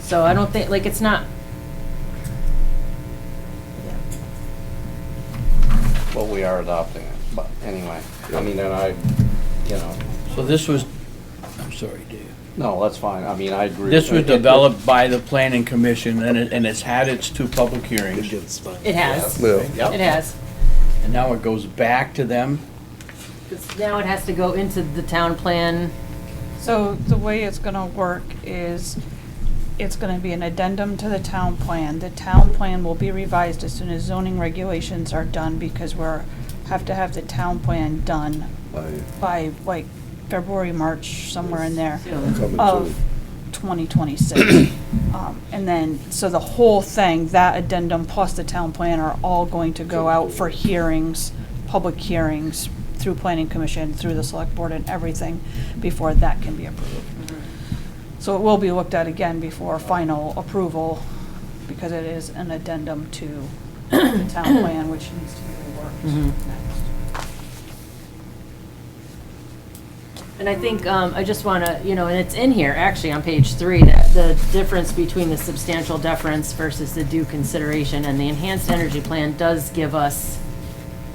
So I don't think, like, it's not, Well, we are adopting it, but anyway, I mean, and I, you know, So this was, I'm sorry, Dave. no, that's fine, I mean, I agree. This was It- it- developed by the planning commission and it, and it's had its two public hearings. it has, Yeah. it has. And now it goes back to them. 'Cause Now it has to go into the town plan. So the way it's gonna work is, it's gonna be an addendum to the town plan. The town plan will be revised as soon as zoning regulations are done, because we're, have to have the town plan done By by like February, March, somewhere in there soon. coming of soon. 2026. Um, And then, so the whole thing, that addendum plus the town plan are all going to go out for hearings, public hearings, through planning commission, through the select board and everything, before that can be approved. So it will be looked at again before final approval, because it is an addendum to the town plan, which needs to be reworked Mhm. next. And I think, um, I just wanna, you know, and it's in here, actually, on page three, that the difference between the substantial deference versus the due consideration, and the enhanced energy plan does give us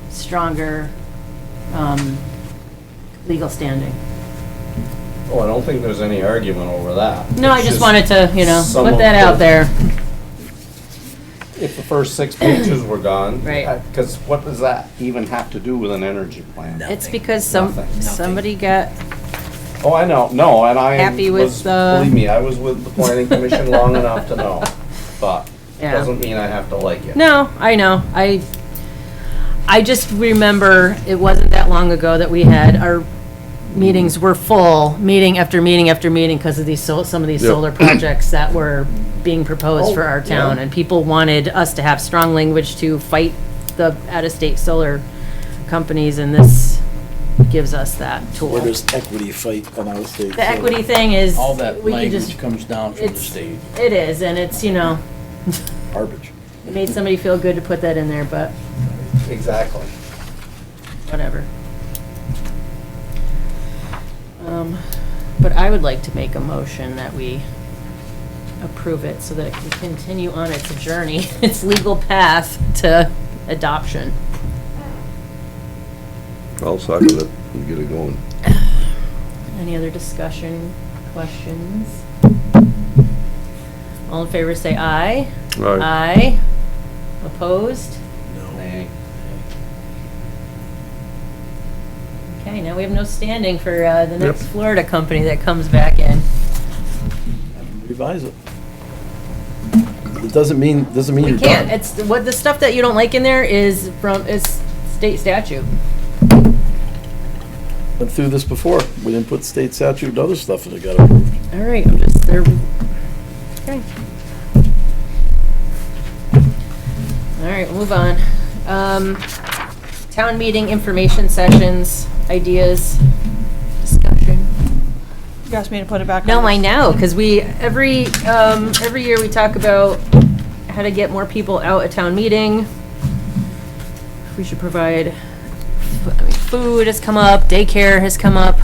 stronger, um, legal standing. Oh, I don't think there's any argument over that. No, I It's just wanted to, you know, some put of that out the- there. If the first six pages were gone. Right. Because what does that even have to do with an energy plan? It's because some, Nothing. Nothing. somebody got, Oh, I know, no, and I Happy with uh, was, the- believe me, I was with the planning commission long enough to know, but it Yeah. doesn't mean I have to like it. no, I know, I, I just remember, it wasn't that long ago that we had, our meetings were full, meeting after meeting after meeting, because of these, sol- some of these Yep. solar projects that were being proposed for Oh, our town, yeah. and people wanted us to have strong language to fight the out-of-state solar companies, and this gives us that tool. Where does equity fight on our state? The equity thing is. All that we can just. language comes down from the it's- state. It is, and it's, you know, Garbage. it made somebody feel good to put that in there, but Exactly. whatever. Um, But I would like to make a motion that we approve it so that it can continue on its journey, its legal path to adoption. I'll second it and get it going. Any other discussion, questions? All in favor, say aye. All right. Aye. Opposed? Nay. Okay, now we have no standing for uh, the next Yep. Florida company that comes back in. Revise it. It doesn't mean, doesn't mean We you're can't, done. it's, what, the stuff that you don't like in there is from, is state statute. Went through this before. We didn't put state statute and other stuff in it got approved. All right, I'm just, there, okay. All right, we'll move on. Um, town meeting information sessions, ideas, discussion. You asked me to put it back on. No, the- I know, because we, every, um, every year we talk about how to get more people out at town meeting. We should provide, I mean, food has come up, daycare has come up.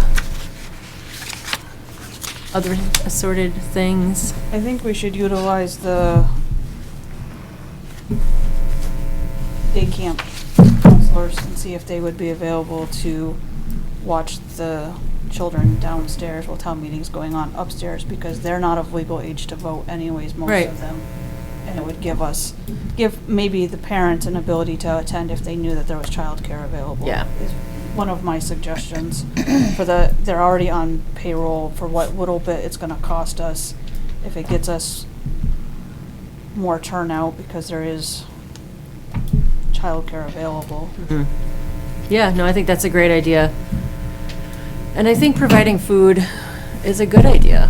Other assorted things. I think we should utilize the day camp counselors and see if they would be available to watch the children downstairs while town meeting's going on upstairs, because they're not of legal age to vote anyways, most Right. of them. And it would give us, give maybe the parents an ability to attend if they knew that there was childcare available. Yeah. Is One of my suggestions for the, they're already on payroll for what little bit it's gonna cost us if it gets us more turnout because there is childcare available. Mm-hmm. Yeah, no, I think that's a great idea. And I think providing food is a good idea.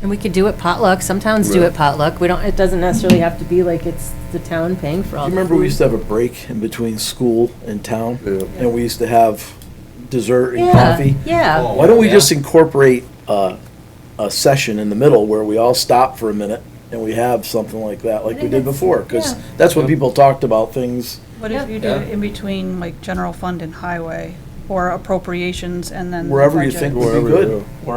And we could do it potluck. Some towns do Right. it potluck. We don't, it doesn't necessarily have to be like it's the town paying for Do all you the remember we food. used to have a break in between school and town? Yeah. And we used to have dessert and Yeah, coffee? yeah. Why don't we Yeah. just incorporate uh, a session in the middle where we all stop for a minute and we have something like that, like we think did that's- before? Because yeah. that's when people talked about things. What if you do Yeah. it in between like general fund and highway or appropriations and then? the Wherever you budget? think would be Wherever you good. go.